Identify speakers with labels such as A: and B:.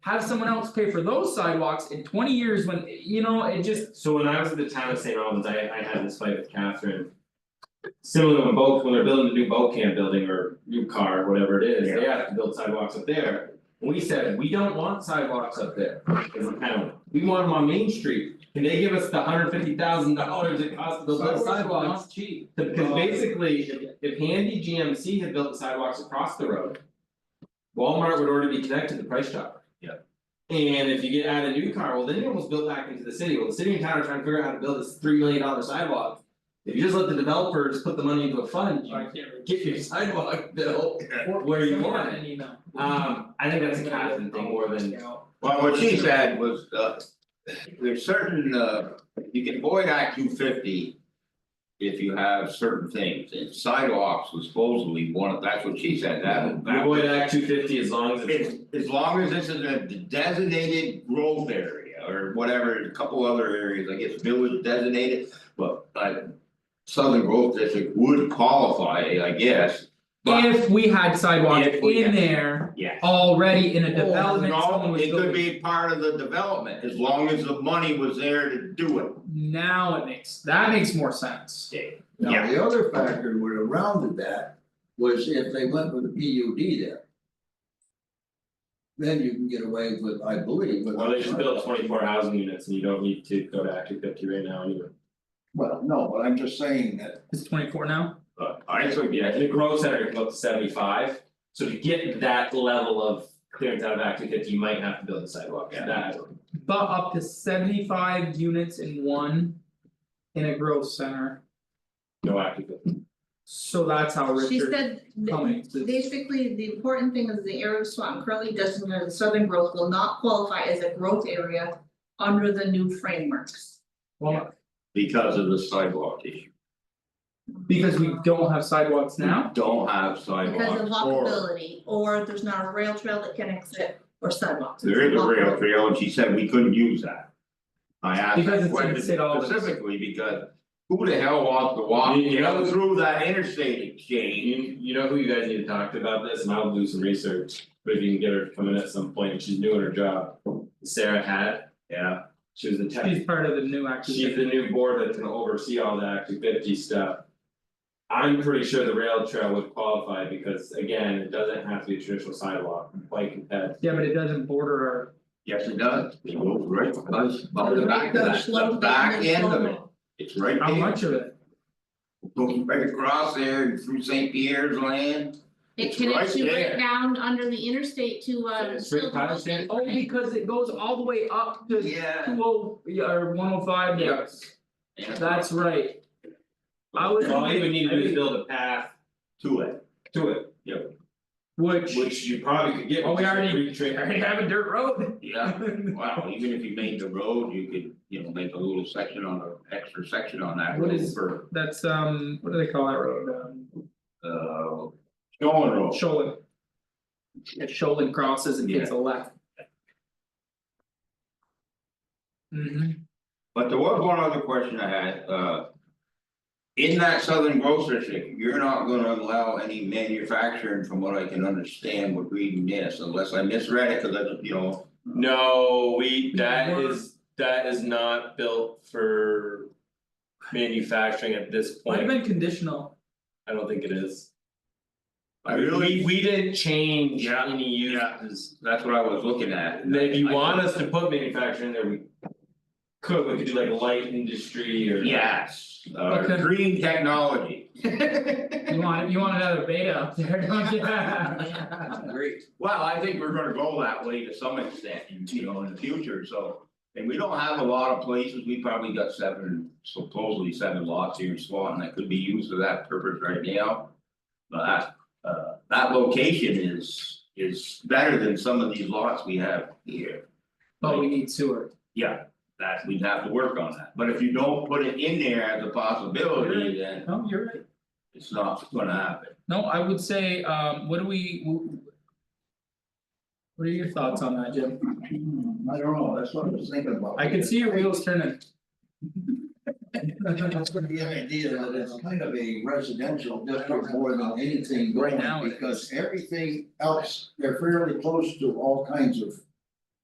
A: Have someone else pay for those sidewalks in twenty years when, you know, it just,
B: So when I was at the town of St. Albans, I I had this fight with Catherine. Similar when both, when they're building a new boat camp building or new car, whatever it is, they have to build sidewalks up there. We said, we don't want sidewalks up there, as a town, we want them on Main Street, can they give us the hundred fifty thousand dollars it costs to build those sidewalks?
C: cheap.
B: The- Cause basically, if if Handy GMC had built the sidewalks across the road. Walmart would already be connected to Price Chopper.
C: Yeah.
B: And if you get out a new car, well, then you're almost built back into the city, well, the city and town are trying to figure out how to build this three million dollar sidewalk. If you just let the developers put the money into a fund, you get your sidewalk built where you want it. Um, I think that's a Catherine thing more than.
D: Well, what she said was, uh, there's certain, uh, you can avoid Act two fifty. If you have certain things, and sidewalks was supposedly one of, that's what she said, that.
B: You avoid Act two fifty as long as it's.
D: As as long as this is a designated growth area or whatever, a couple other areas, I guess village designated, but uh. Southern Growth District would qualify, I guess, but
A: if we had sidewalks
D: If we
A: in
D: had-
A: there
D: yeah.
A: already in a development zone
D: No,
A: was
D: it could
A: built,
D: be part of the development, as long as the money was there to do it.
A: now it makes, that makes more sense.
D: Yeah.
E: Now, the other factor would have rounded that was if they went with a P U D there. Then you can get away with, I believe, with.
B: Well, they should build twenty four housing units and you don't need to go to Act two fifty right now anyway.
E: Well, no, but I'm just saying that,
A: It's twenty four now,
B: But I think, yeah, the growth center can go up to seventy five, so to get that level of clearance out of Act two fifty, you might have to build a sidewalk,
D: Yeah.
B: that.
A: but up to seventy five units in one. In a growth center,
B: No Act two fifty,
A: so that's how
F: She
A: Richard
F: said, th-
A: Cummings is.
F: basically, the important thing is the area of Swanton currently designated as southern growth will not qualify as a growth area. Under the new frameworks.
A: Well,
D: Because of the sidewalk issue.
A: because we don't have sidewalks now,
D: Don't have
F: Because of
D: sidewalks or,
F: walkability, or there's not a rail trail that connects it, or sidewalks.
D: there is
F: It's
D: a rail
F: walkability.
D: trail, and she said we couldn't use that. I asked
A: Because it's
D: that
A: in
D: question
A: St. Albans.
D: specifically because who the hell wants to walk,
B: You- you
D: you know,
B: know-
D: through that interstate exchange?
B: you you know who you guys need to talk to about this, and I'll do some research, but if you can get her to come in at some point, she's doing her job. Sarah had,
D: Yeah,
B: she was the tech,
A: she's part of the new action.
B: she's the new board that's gonna oversee all the Act two fifty stuff. I'm pretty sure the rail trail would qualify, because again, it doesn't have to be a traditional sidewalk, like that,
A: Yeah, but it doesn't border our
D: yes, it does, it goes right, does, but the
F: The
D: back
F: rate
D: of
F: goes
D: that,
F: slow
D: the
F: down
D: back
F: and
D: end
F: slow
D: of it,
F: down.
D: it's right there.
A: How much of it?
D: Going right across there and through St. Pierre's land.
F: It
D: It's right
F: connects you
D: there.
F: right down under the interstate to uh.
B: It's right
F: Silver
B: past
F: Lake.
B: it.
A: Oh, because it goes all the way up to two
D: Yeah.
A: oh, yeah, or one oh five, yes, that's right. I was
B: all you would need to do is
A: thinking,
B: build a path
D: To it.
B: to it.
A: which,
B: Which you probably could get.
A: well, we
B: with
A: already,
B: free trade.
A: we already have a dirt road.
D: Yeah, wow, even if you made the road, you could, you know, make a little section on, a extra section on that
A: What
D: road
A: is-
D: for,
A: That's um, what do they call that road, um,
D: uh. Going road.
A: Sholin. If Sholin crosses and takes a left. Mhm.
D: But there was one other question I had, uh. In that southern growth district, you're not gonna allow any manufacturing from what I can understand with reading this, unless I misread it, cause I, don't- you know.
B: No, we, that
A: We're-
B: is, that is not built for. Manufacturing at this
A: might have
B: point,
A: been conditional,
B: I don't think it is.
D: I really,
B: We we didn't change
D: Yeah,
B: any uses.
D: that's what I was looking at.
B: And If you want us to put manufacturing there, we. Could, we could do like light industry or.
D: Yes, uh,
A: Okay.
D: green technology.
A: you want, you want another beta up there, don't you? Oh,
D: Great. Well, I think we're gonna go that way to some extent, in, you know, in the future, so. And we don't have a lot of places, we probably got seven, supposedly seven lots here in Swanton that could be used for that purpose right now. But that, uh, that location is, is better than some of these lots we have here.
A: But we need sewer,
D: Yeah, that, we'd have to work on that, but if you don't put it in there as a possibility, then
A: no, you're right.
D: it's not gonna happen.
A: No, I would say, um, what do we? w- What are your thoughts on that, Jim?
E: I don't know, that's what I was thinking about.
A: I can see your wheels turning.
E: That's gonna be an idea that it's kind of a residential district more than anything
A: Right
E: going,
A: now it
E: because everything else, they're fairly close to all kinds of.